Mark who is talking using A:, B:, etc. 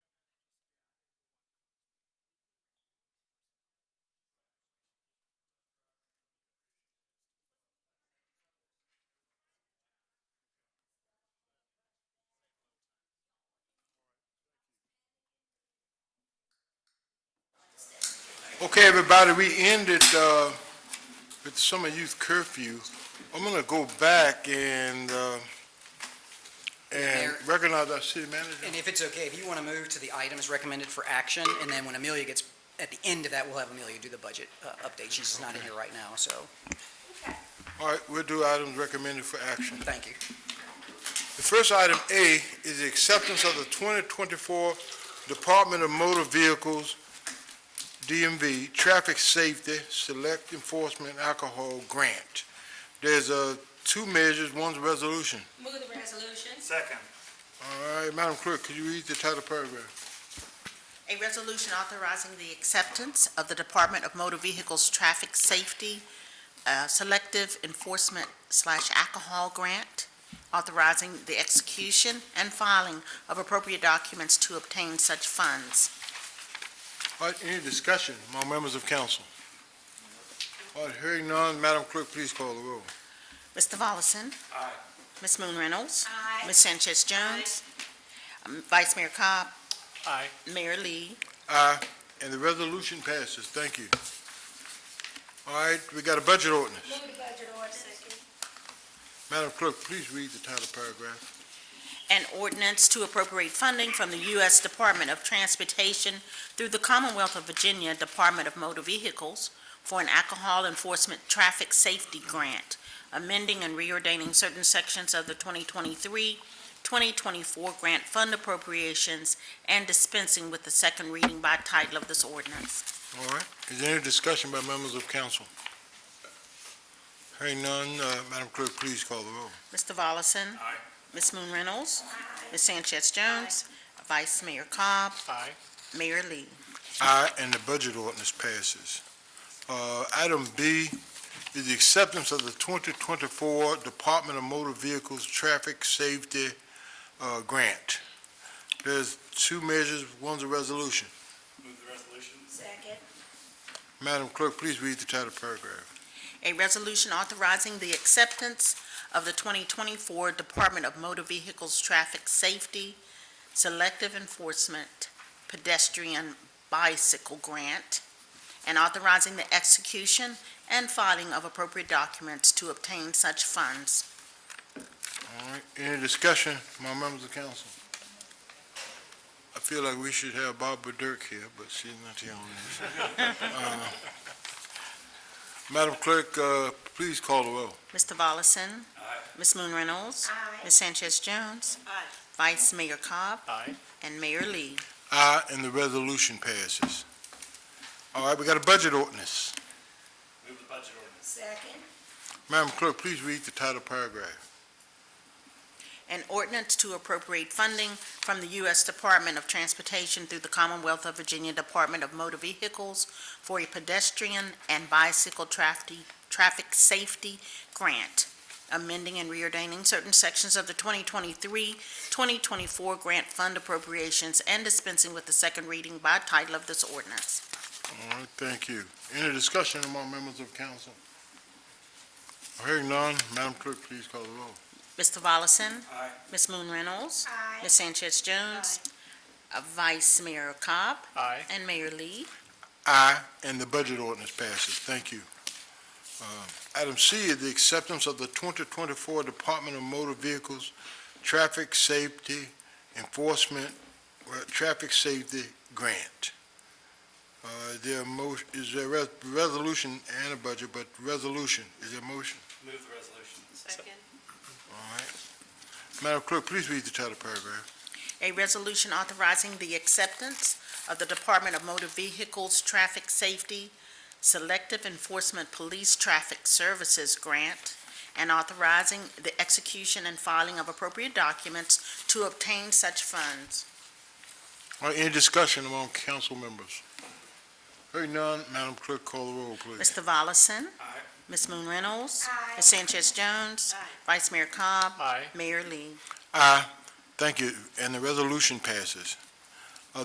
A: Okay, everybody, we ended uh, with the summer youth curfew. I'm going to go back and, uh, and
B: Mayor.
A: recognize our city manager.
B: And if it's okay, if you want to move to the items recommended for action, and then when Amelia gets, at the end of that, we'll have Amelia do the budget uh, update. She's just not in here right now, so,
A: All right, we'll do items recommended for action.
B: thank you.
A: The first item A is the acceptance of the 2024 Department of Motor Vehicles, DMV, Traffic Safety Select Enforcement Alcohol Grant. There's uh, two measures, one's a resolution.
C: Move the resolution.
D: Second.
A: All right, Madam Clerk, could you read the title paragraph?
E: A resolution authorizing the acceptance of the Department of Motor Vehicles Traffic Safety uh, Selective Enforcement slash Alcohol Grant, authorizing the execution and filing of appropriate documents to obtain such funds.
A: All right, any discussion among members of council? All right, hearing none, Madam Clerk, please call the roll.
E: Mr. Volleson?
D: Aye.
E: Ms. Moon Reynolds?
C: Aye.
E: Ms. Sanchez Jones? Um, Vice Mayor Cobb?
D: Aye.
E: Mayor Lee?
A: Aye, and the resolution passes, thank you. All right, we got a budget ordinance.
C: Move the budget ordinance.
A: Madam Clerk, please read the title paragraph.
E: An ordinance to appropriate funding from the U.S. Department of Transportation through the Commonwealth of Virginia Department of Motor Vehicles for an alcohol enforcement traffic safety grant, amending and reordaining certain sections of the 2023-2024 grant fund appropriations and dispensing with the second reading by title of this ordinance.
A: All right, is there any discussion by members of council? Hearing none, uh, Madam Clerk, please call the roll.
E: Mr. Volleson?
D: Aye.
E: Ms. Moon Reynolds? Ms. Sanchez Jones? Vice Mayor Cobb?
D: Aye.
E: Mayor Lee?
A: Aye, and the budget ordinance passes. Uh, Item B is the acceptance of the 2024 Department of Motor Vehicles Traffic Safety uh, Grant. There's two measures, one's a resolution.
D: Move the resolution.
C: Second.
A: Madam Clerk, please read the title paragraph.
E: A resolution authorizing the acceptance of the 2024 Department of Motor Vehicles Traffic Safety Selective Enforcement Pedestrian Bicycle Grant, and authorizing the execution and filing of appropriate documents to obtain such funds.
A: All right, any discussion, my members of council? I feel like we should have Barbara Dirk here, but she's not here on this. Uh, Madam Clerk, uh, please call the roll.
E: Mr. Volleson?
D: Aye.
E: Ms. Moon Reynolds?
C: Aye.
E: Ms. Sanchez Jones?
C: Aye.
E: Vice Mayor Cobb?
D: Aye.
E: And Mayor Lee?
A: Aye, and the resolution passes. All right, we got a budget ordinance.
D: Move the budget ordinance.
C: Second.
A: Madam Clerk, please read the title paragraph.
E: An ordinance to appropriate funding from the U.S. Department of Transportation through the Commonwealth of Virginia Department of Motor Vehicles for a pedestrian and bicycle traffic, traffic safety grant, amending and reordaining certain sections of the 2023-2024 grant fund appropriations and dispensing with the second reading by title of this ordinance.
A: All right, thank you. Any discussion among members of council? Hearing none, Madam Clerk, please call the roll.
E: Mr. Volleson?
D: Aye.
E: Ms. Moon Reynolds?
C: Aye.
E: Ms. Sanchez Jones? Uh, Vice Mayor Cobb?
D: Aye.
E: And Mayor Lee?
A: Aye, and the budget ordinance passes. Thank you. Uh, Item C is the acceptance of the 2024 Department of Motor Vehicles Traffic Safety Enforcement, uh, Traffic Safety Grant. Uh, There are mo, is there a res- resolution and a budget, but resolution, is there a motion?
D: Move the resolution.
A: All right. Madam Clerk, please read the title paragraph.
E: A resolution authorizing the acceptance of the Department of Motor Vehicles Traffic Safety Selective Enforcement Police Traffic Services Grant and authorizing the execution and filing of appropriate documents to obtain such funds.
A: All right, any discussion among council members? Hearing none, Madam Clerk, call the roll, please.
E: Mr. Volleson?
D: Aye.
E: Ms. Moon Reynolds?
C: Aye.
E: Ms. Sanchez Jones?
C: Aye.
E: Vice Mayor Cobb?
D: Aye.
E: Mayor Lee?
A: Aye. Thank you, and the resolution passes.